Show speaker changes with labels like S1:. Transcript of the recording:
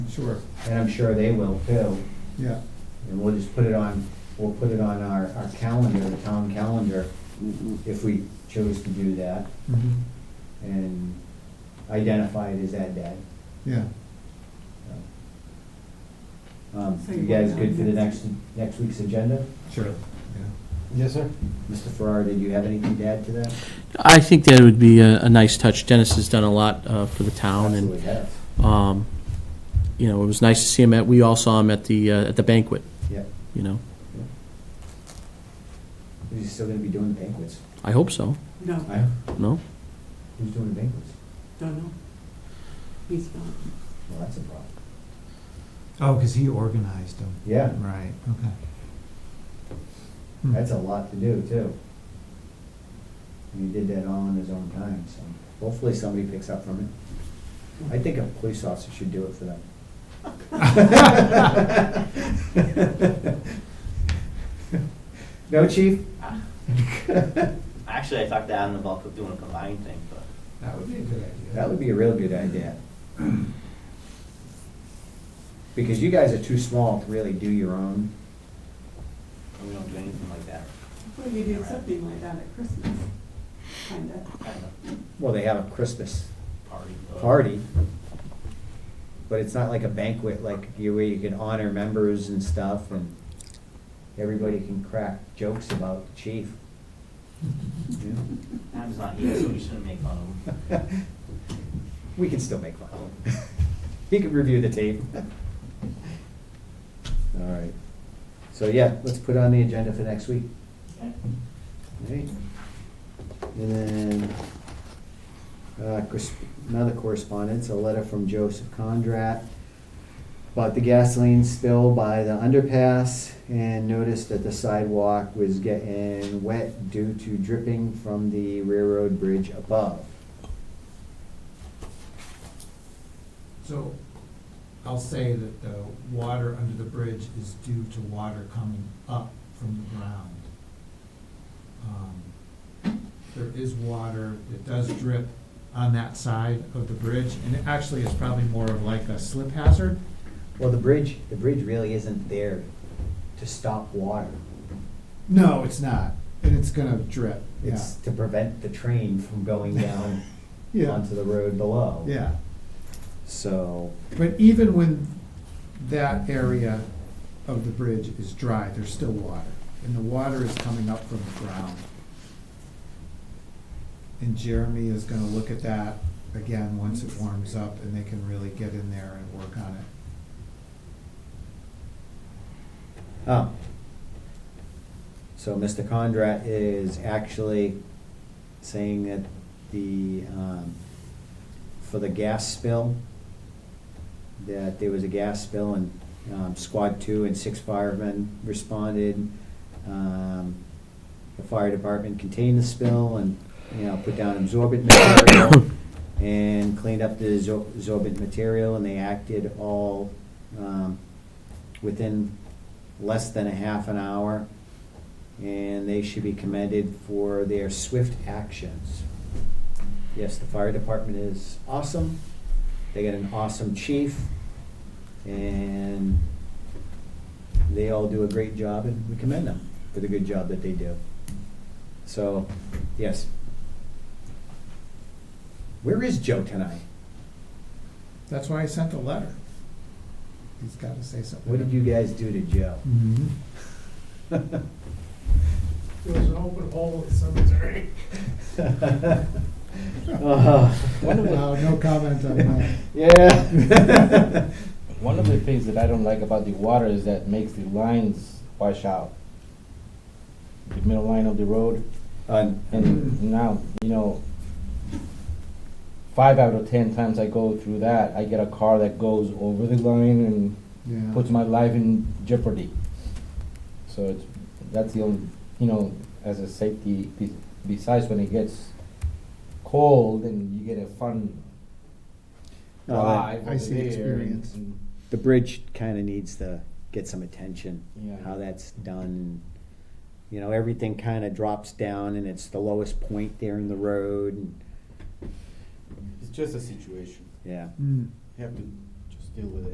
S1: Sure,
S2: and I'm sure they will too.
S1: yeah.
S2: And we'll just put it on, we'll put it on our, our calendar, the town calendar, if we chose to do that,
S1: mhm,
S2: and identify it as that day.
S1: Yeah,
S2: so. Um,
S3: So
S2: you
S3: you
S2: guys
S3: want
S2: good for the
S3: that?
S2: next, next week's agenda?
S1: sure, yeah.
S4: Yes, sir.
S2: Mr. Farrar, did you have anything to add to that?
S5: I think that would be a, a nice touch. Dennis has done a lot uh, for the town,
S2: Absolutely
S5: and,
S2: have,
S5: um, you know, it was nice to see him at, we all saw him at the, uh, at the banquet,
S2: yeah.
S5: you know?
S2: He's still gonna be doing banquets.
S5: I hope so,
S3: No,
S2: I,
S5: no?
S2: who's doing banquets?
S3: don't know. He's not.
S2: Well, that's a problem.
S1: Oh, because he organized them,
S2: Yeah,
S1: right, okay. Hmm,
S2: that's a lot to do too. And he did that all on his own time, so hopefully somebody picks up from it. I think a police officer should do it for them. No, chief?
S6: Actually, I talked to Adam about doing a combined thing, but
S1: That would be a good
S2: That would be a real good idea. Because you guys are too small to really do your own.
S6: we don't do anything like that.
S3: Well, you do something like that at Christmas, kinda.
S6: Kind of
S2: Well, they have a Christmas
S6: party. uh,
S2: party, but it's not like a banquet, like you, where you can honor members and stuff, and everybody can crack jokes about the chief.
S6: Adam's not here, so we shouldn't make fun of him.
S2: We can still make fun of him. He can review the tape. All right. So, yeah, let's put it on the agenda for next week. Alright. And then, uh, cors- another correspondence, a letter from Joseph Condrat about the gasoline spill by the underpass and noticed that the sidewalk was getting wet due to dripping from the railroad bridge above.
S1: So, I'll say that the water under the bridge is due to water coming up from the ground. Um, There is water that does drip on that side of the bridge, and it actually is probably more of like a slip hazard.
S2: Well, the bridge, the bridge really isn't there to stop water.
S1: No, it's not, and it's gonna drip, yeah,
S2: It's to prevent the train from going down
S1: yeah,
S2: onto the road below.
S1: yeah.
S2: So,
S1: But even when that area of the bridge is dry, there's still water, and the water is coming up from the ground. And Jeremy is gonna look at that again once it warms up, and they can really get in there and work on it.
S2: um, so Mr. Condrat is actually saying that the, um, for the gas spill, that there was a gas spill and, um, squad two and six firemen responded. Um, the fire department contained the spill and, you know, put down absorbent material and cleaned up the absor- absorbent material, and they acted all um, within less than a half an hour. And they should be commended for their swift actions. Yes, the fire department is awesome. They got an awesome chief, and they all do a great job, and we commend them for the good job that they do. So, yes, where is Joe tonight?
S1: That's why I sent the letter. He's gotta say something.
S2: What did you guys do to Joe?
S1: Mhm.
S4: There was an open hole in the cemetery.
S1: Wow, no comment on that.
S2: Yeah.
S7: One of the things that I don't like about the water is that makes the lines wash out. The middle line of the road,
S2: On-
S7: and now, you know, five out of ten times I go through that, I get a car that goes over the line and
S1: Yeah,
S7: puts my life in jeopardy. So it's, that's the only, you know, as a safety, be- besides when it gets cold and you get a fun
S2: No,
S7: drive
S1: I
S7: over
S1: see
S7: there and-
S1: experience.
S7: and
S2: The bridge kind of needs to get some attention,
S7: Yeah.
S2: how that's done. You know, everything kind of drops down and it's the lowest point there in the road. and-
S7: It's just a situation.
S2: Yeah.
S1: Mm.
S7: You have to just deal with it.